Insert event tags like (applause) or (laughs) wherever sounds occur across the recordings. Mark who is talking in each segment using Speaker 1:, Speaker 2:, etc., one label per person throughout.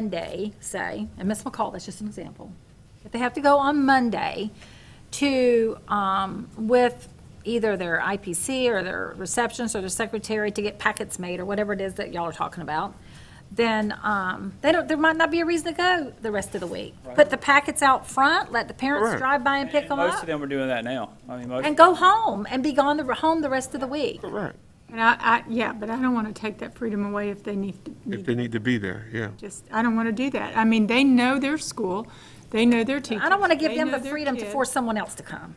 Speaker 1: Monday, say, and Ms. McCall, that's just an example, if they have to go on Monday to, um, with either their IPC or their receptionist or their secretary to get packets made or whatever it is that y'all are talking about, then, um, they don't, there might not be a reason to go the rest of the week. Put the packets out front, let the parents
Speaker 2: Right.
Speaker 1: drive by and pick them
Speaker 3: Most of
Speaker 1: up,
Speaker 3: them are doing that now. I mean, most,
Speaker 1: and go home and be gone the, home the rest of the week.
Speaker 2: Right,
Speaker 4: And I, I, yeah, but I don't want to take that freedom away if they need to,
Speaker 2: if
Speaker 4: need
Speaker 2: they need to be there, yeah.
Speaker 4: just, I don't want to do that. I mean, they know their school, they know their teachers.
Speaker 3: (laughs)
Speaker 1: I don't want to give
Speaker 4: they
Speaker 1: them
Speaker 4: know
Speaker 1: the
Speaker 4: their
Speaker 1: freedom to
Speaker 4: kids.
Speaker 1: force someone else to come.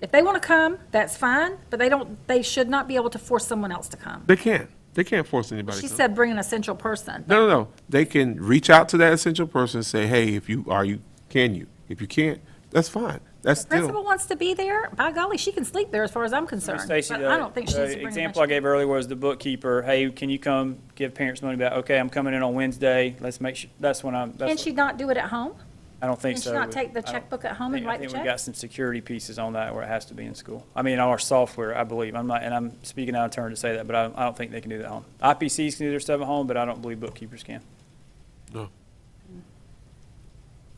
Speaker 1: If they want to come, that's fine, but they don't, they should not be able to force someone else to come.
Speaker 2: They can, they can't force anybody
Speaker 1: She
Speaker 2: to.
Speaker 1: said bring an essential person.
Speaker 2: No, no, no, they can reach out to that essential person and say, hey, if you, are you, can you? If you can't, that's fine, that's
Speaker 1: Principal
Speaker 2: still,
Speaker 1: wants to be there, by golly, she can sleep there as far as I'm concerned.
Speaker 3: Stacy,
Speaker 1: But I
Speaker 3: the
Speaker 1: don't think she needs to
Speaker 3: the
Speaker 1: bring a
Speaker 3: example I
Speaker 1: bunch of-
Speaker 3: gave earlier was the bookkeeper. Hey, can you come give parents money back? Okay, I'm coming in on Wednesday. Let's make sure, that's when I'm,
Speaker 1: Can
Speaker 3: that's,
Speaker 1: she not do it at home?
Speaker 3: I don't think
Speaker 1: Can she
Speaker 3: so.
Speaker 1: not take the
Speaker 3: I don't
Speaker 1: checkbook at home and
Speaker 3: think-
Speaker 1: write the
Speaker 3: I think we
Speaker 1: check?
Speaker 3: got some security pieces on that where it has to be in school. I mean, our software, I believe. I'm not, and I'm speaking out of turn to say that, but I, I don't think they can do that at home. IPCs can do their stuff at home, but I don't believe bookkeepers can.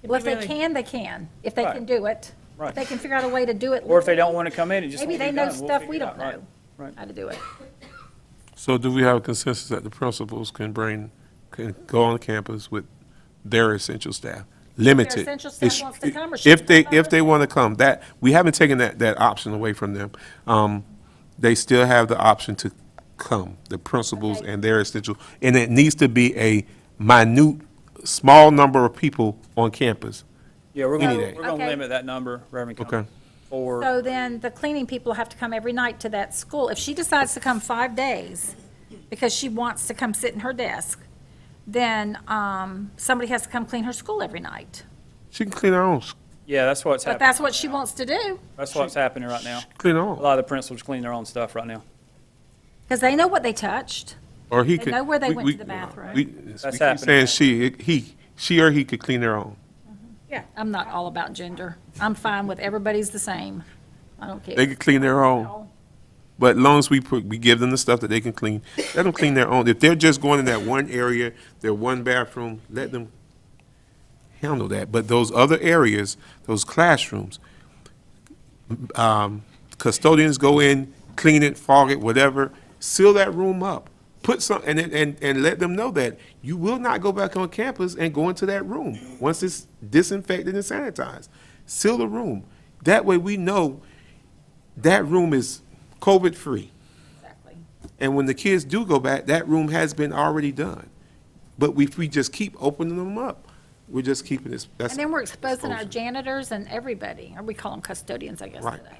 Speaker 1: Well, if they can, they can, if they
Speaker 3: Right.
Speaker 1: can do it. If
Speaker 3: Right.
Speaker 1: they can figure out a way to do it.
Speaker 3: Or if they don't want to come in, it just
Speaker 1: Maybe
Speaker 3: won't be
Speaker 1: they know
Speaker 3: done. We'll
Speaker 1: stuff we
Speaker 3: figure it
Speaker 1: don't
Speaker 3: out. Right.
Speaker 1: know, how to do it.
Speaker 2: so do we have a consensus that the principals can bring, can go on campus with their essential staff? Limited.
Speaker 1: essential staff
Speaker 2: It's-
Speaker 1: wants to come or
Speaker 2: If
Speaker 1: shouldn't
Speaker 2: they,
Speaker 1: come.
Speaker 2: if they want to come, that, we haven't taken that, that option away from them. Um, they still have the option to come, the principals
Speaker 1: Okay.
Speaker 2: and their essential, and it needs to be a minute, small number of people on campus.
Speaker 3: Yeah, we're
Speaker 2: Any
Speaker 3: going, to
Speaker 2: day.
Speaker 3: we're going to
Speaker 1: Okay.
Speaker 3: limit that number, Reverend Combs.
Speaker 2: Okay.
Speaker 3: Or.
Speaker 1: So then the cleaning people have to come every night to that school. If she decides to come five days because she wants to come sit in her desk, then um, somebody has to come clean her school every night.
Speaker 2: She can clean her own, s-
Speaker 3: Yeah, that's what's
Speaker 1: But
Speaker 3: happening.
Speaker 1: that's what she wants to do
Speaker 3: That's what's happening right now.
Speaker 2: clean her
Speaker 3: A
Speaker 2: own,
Speaker 3: lot of the principals clean their own stuff right now.
Speaker 1: because they know what they touched.
Speaker 2: or he
Speaker 1: They
Speaker 2: could.
Speaker 1: know where they
Speaker 2: we-
Speaker 1: went
Speaker 2: we-
Speaker 1: to the bathroom.
Speaker 2: we- we keep
Speaker 3: happening.
Speaker 2: Saying she, it- he, she or he could clean their own.
Speaker 1: I'm not all about gender. I'm fine with everybody's the same. I don't
Speaker 2: They
Speaker 1: care.
Speaker 2: could clean their own, but long as we put, we give them the stuff that they can clean, let them clean their own. If they're just going in that one area, their one bathroom, let them handle that. But those other areas, those classrooms, um, custodians go in, clean it, fog it, whatever, seal that room up. Put some, and, and, and let them know that you will not go back on campus and go into that room once it's disinfected and sanitized. Seal the room. That way we know that room is COVID-free.
Speaker 1: Exactly.
Speaker 2: And when the kids do go back, that room has been already done. But we, we just keep opening them up. We're just keeping this, that's.
Speaker 1: And then we're exposing our
Speaker 2: exposure.
Speaker 1: janitors and everybody, or we call them custodians, I guess,
Speaker 2: Right.
Speaker 1: today.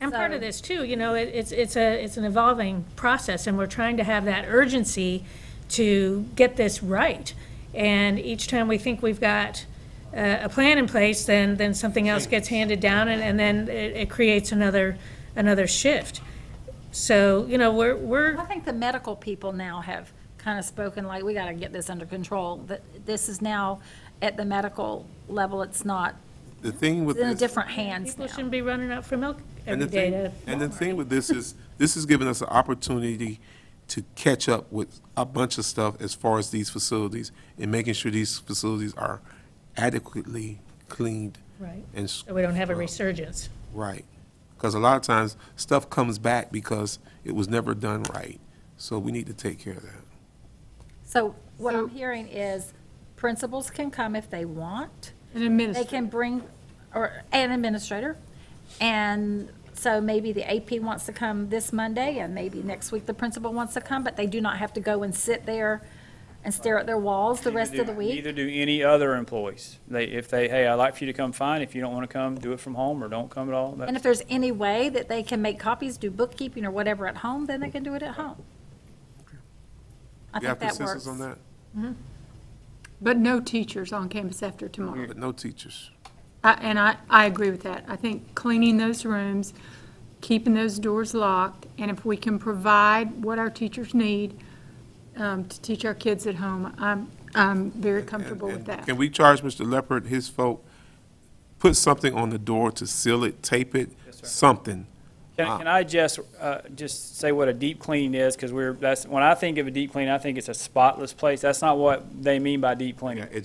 Speaker 5: And part of this too, you know, it, it's, it's a, it's an evolving process and we're trying to have that urgency to get this right. And each time we think we've got a, a plan in place, then, then something else gets handed down and, and then it, it creates another, another shift. So, you know, we're, we're.
Speaker 1: I think the medical people now have kind of spoken like, we got to get this under control, that this is now at the medical level, it's not,
Speaker 2: The thing with
Speaker 1: it's in a
Speaker 2: this.
Speaker 1: different hands
Speaker 5: People
Speaker 1: now.
Speaker 5: shouldn't be running out for milk
Speaker 2: And
Speaker 5: every
Speaker 2: the
Speaker 5: day
Speaker 2: thing,
Speaker 5: to.
Speaker 2: and the thing with this is, this is giving us an opportunity to catch up with a bunch of stuff as far as these facilities and making sure these facilities are adequately cleaned.
Speaker 5: Right.
Speaker 2: And, s-
Speaker 5: So we don't have a resurgence.
Speaker 2: right. Because a lot of times, stuff comes back because it was never done right. So we need to take care of that.
Speaker 1: So what I'm hearing is principals can come if they want.
Speaker 4: An
Speaker 1: They
Speaker 4: administrator.
Speaker 1: can bring, or an administrator. And so maybe the AP wants to come this Monday and maybe next week the principal wants to come, but they do not have to go and sit there and stare at their walls the rest of the week.
Speaker 3: Neither do any other employees. They, if they, hey, I'd like for you to come, fine. If you don't want to come, do it from home or don't come at all. That's-
Speaker 1: And if there's any way that they can make copies, do bookkeeping or whatever at home, then they can do it at home. I
Speaker 2: You have
Speaker 1: think that
Speaker 2: consensus
Speaker 1: works.
Speaker 2: on that?
Speaker 4: But no teachers on campus after tomorrow.
Speaker 2: But no teachers.
Speaker 4: I- And I, I agree with that. I think cleaning those rooms, keeping those doors locked, and if we can provide what our teachers need um, to teach our kids at home, I'm, I'm very comfortable with
Speaker 2: And
Speaker 4: that.
Speaker 2: Can we charge Mr. Leopard, his folk, put something on the door to seal it, tape it, something,
Speaker 3: Can, can I just, uh, just say what a deep clean is? Because we're, that's, when I think of a deep clean, I think it's a spotless place. That's not what they mean by deep cleaning.
Speaker 2: Yeah, it-